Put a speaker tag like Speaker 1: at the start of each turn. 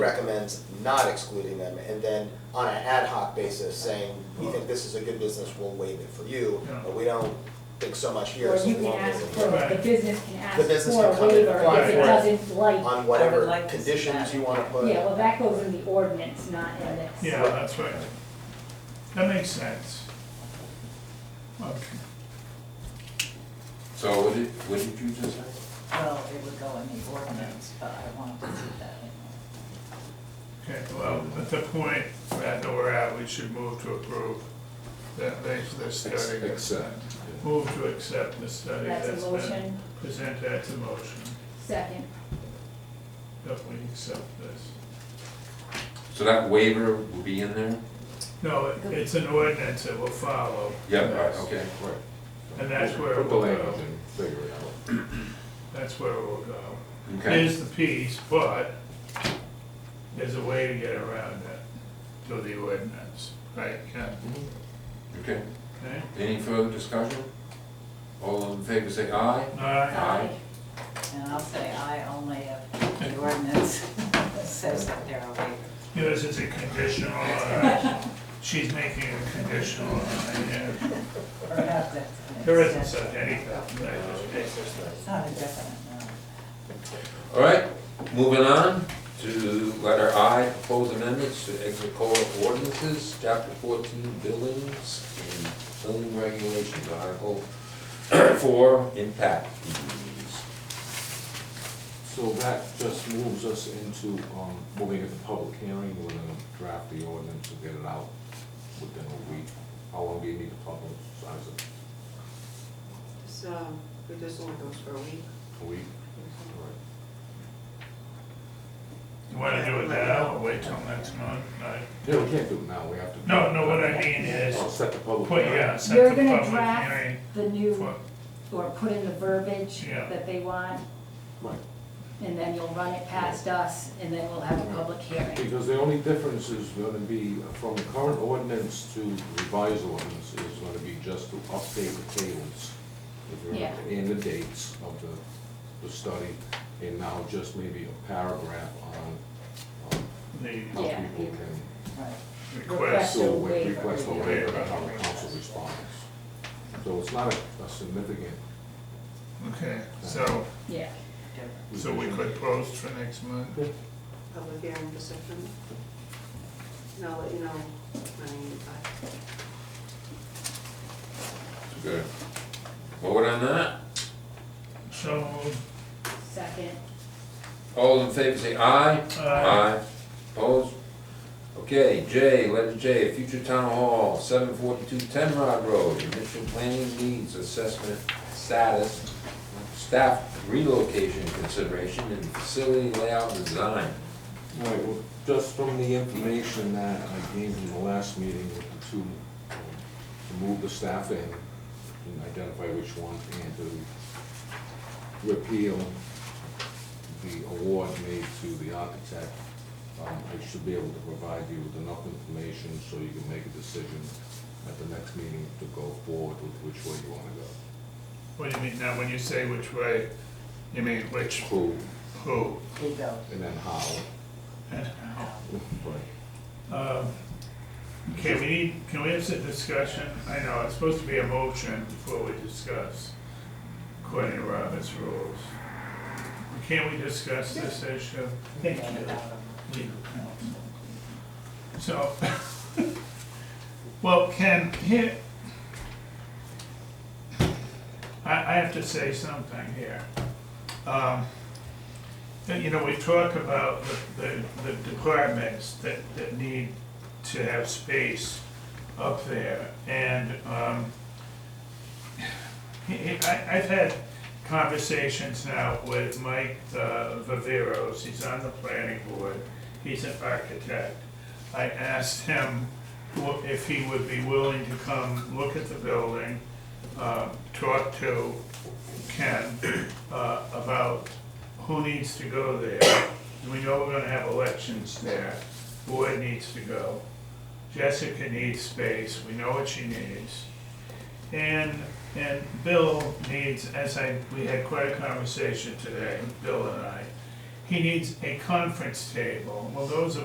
Speaker 1: Right.
Speaker 2: recommends not excluding them, and then on an ad hoc basis saying, we think this is a good business, we'll waive it for you,
Speaker 3: Yeah.
Speaker 2: but we don't think so much here,
Speaker 4: Or
Speaker 2: so we
Speaker 4: you can
Speaker 2: won't
Speaker 4: ask
Speaker 2: waive it.
Speaker 4: for, the
Speaker 3: Right.
Speaker 4: business can ask
Speaker 2: The business
Speaker 4: for
Speaker 2: can
Speaker 4: a
Speaker 2: come in and
Speaker 4: waiver
Speaker 2: apply
Speaker 4: if it
Speaker 3: for it.
Speaker 4: doesn't like.
Speaker 2: On whatever
Speaker 5: like to see
Speaker 2: conditions
Speaker 5: that.
Speaker 2: you wanna put.
Speaker 4: Yeah, well, that goes in the ordinance, not in this.
Speaker 3: Yeah, that's right. That makes sense. Okay,
Speaker 6: So what did, what did you just say?
Speaker 5: Well, it would go in the ordinance, but I wanted to see that in there.
Speaker 3: okay, well, at the point that we're at, we should move to approve that they, the study. that's been-
Speaker 6: Accept.
Speaker 3: Move to accept the study
Speaker 4: That's
Speaker 3: that's
Speaker 4: a
Speaker 3: been
Speaker 4: motion,
Speaker 3: presented, that's a motion,
Speaker 4: second,
Speaker 3: that we accept this.
Speaker 6: So that waiver will be in there?
Speaker 3: No, it- it's an ordinance that will follow.
Speaker 6: Yeah, right, okay, right.
Speaker 3: And that's where
Speaker 7: Put the
Speaker 3: we'll
Speaker 7: language
Speaker 3: go.
Speaker 7: and figure it out.
Speaker 3: That's where we'll go.
Speaker 6: Okay,
Speaker 3: Here's the piece, but there's a way to get around that through the ordinance, right, yeah,
Speaker 6: okay.
Speaker 3: okay?
Speaker 6: Any further discussion? All in favor say aye?
Speaker 3: All right,
Speaker 4: aye,
Speaker 5: And I'll say I only if the ordinance says that there are waivers.
Speaker 3: yours is a conditional, uh, she's making a conditional, uh, yeah.
Speaker 5: Perhaps that's an exception.
Speaker 3: There isn't such anything, I just-
Speaker 5: It's not a definite, no.
Speaker 6: All right, moving on to letter I, proposed amendments to exit code of ordinances, chapter fourteen, buildings and building regulations, article four, impact fees.
Speaker 7: So that just moves us into, um, when we get the public hearing, we're gonna draft the ordinance and get it out within a week. How long do you need to publicize it?
Speaker 8: So, but this only goes for a week.
Speaker 7: A week?
Speaker 3: You wanna do it now, or wait till next month, I,
Speaker 7: Yeah, we can't do it now, we have to.
Speaker 3: No, no, what I mean is-
Speaker 7: Oh, set the public
Speaker 3: put,
Speaker 7: hearing.
Speaker 3: yeah, set
Speaker 4: You're
Speaker 3: the
Speaker 4: gonna
Speaker 3: public
Speaker 4: draft
Speaker 3: hearing
Speaker 4: the new,
Speaker 3: for-
Speaker 4: or put in the verbiage
Speaker 3: Yeah.
Speaker 4: that they want,
Speaker 7: Right,
Speaker 4: and then you'll run it past us, and then we'll have a public hearing.
Speaker 7: because the only difference is gonna be from the current ordinance to revised ordinance is gonna be just to update the tables. if you
Speaker 4: Yeah.
Speaker 7: remember, And the dates of the, the study, and now just maybe a paragraph on, um,
Speaker 3: the
Speaker 7: how
Speaker 4: Yeah.
Speaker 7: people can
Speaker 5: Right.
Speaker 3: request.
Speaker 4: So
Speaker 7: still
Speaker 4: waiver.
Speaker 7: request for waiver and how the council responds. So it's not a a significant
Speaker 3: Okay, so,
Speaker 4: Yeah,
Speaker 5: different.
Speaker 3: so we could post for next month?
Speaker 8: Public hearing for September. And I'll let you know when I need that.
Speaker 6: Good. Vote on that?
Speaker 3: So,
Speaker 4: second,
Speaker 6: All in favor say aye?
Speaker 3: Aye.
Speaker 6: Opposed? Okay, J, letter J, future town hall, seven forty-two Tenrod Road, initial planning needs assessment status, staff relocation consideration and facility layout design.
Speaker 7: Right, well, just from the information that I gave in the last meeting with the two, um, to move the staff in, and identify which one, and to repeal the award made to the architect, um, I should be able to provide you with enough information so you can make a decision at the next meeting to go forward with which way you wanna go.
Speaker 3: what do you mean, now, when you say which way, you mean which,
Speaker 7: Who,
Speaker 3: who?
Speaker 5: Here you go.
Speaker 7: and then how. Right.
Speaker 3: Um, Okay, we need, can we have some discussion? I know, it's supposed to be a motion before we discuss, according to Robert's rules. Can we discuss this issue? Thank you. So, well, can, here, I, I have to say something here. Um, you know, we talk about the, the- the departments that, that need to have space up there, and, um, I, I- I've had conversations now with Mike uh, Viveros, he's on the planning board, he's an architect. I asked him wha- if he would be willing to come look at the building, uh, talk to Ken uh, about who needs to go there. We know we're gonna have elections there, board needs to go. Jessica needs space, we know what she needs. And, and Bill needs, as I, we had quite a conversation today, Bill and I, he needs a conference table. Well, those are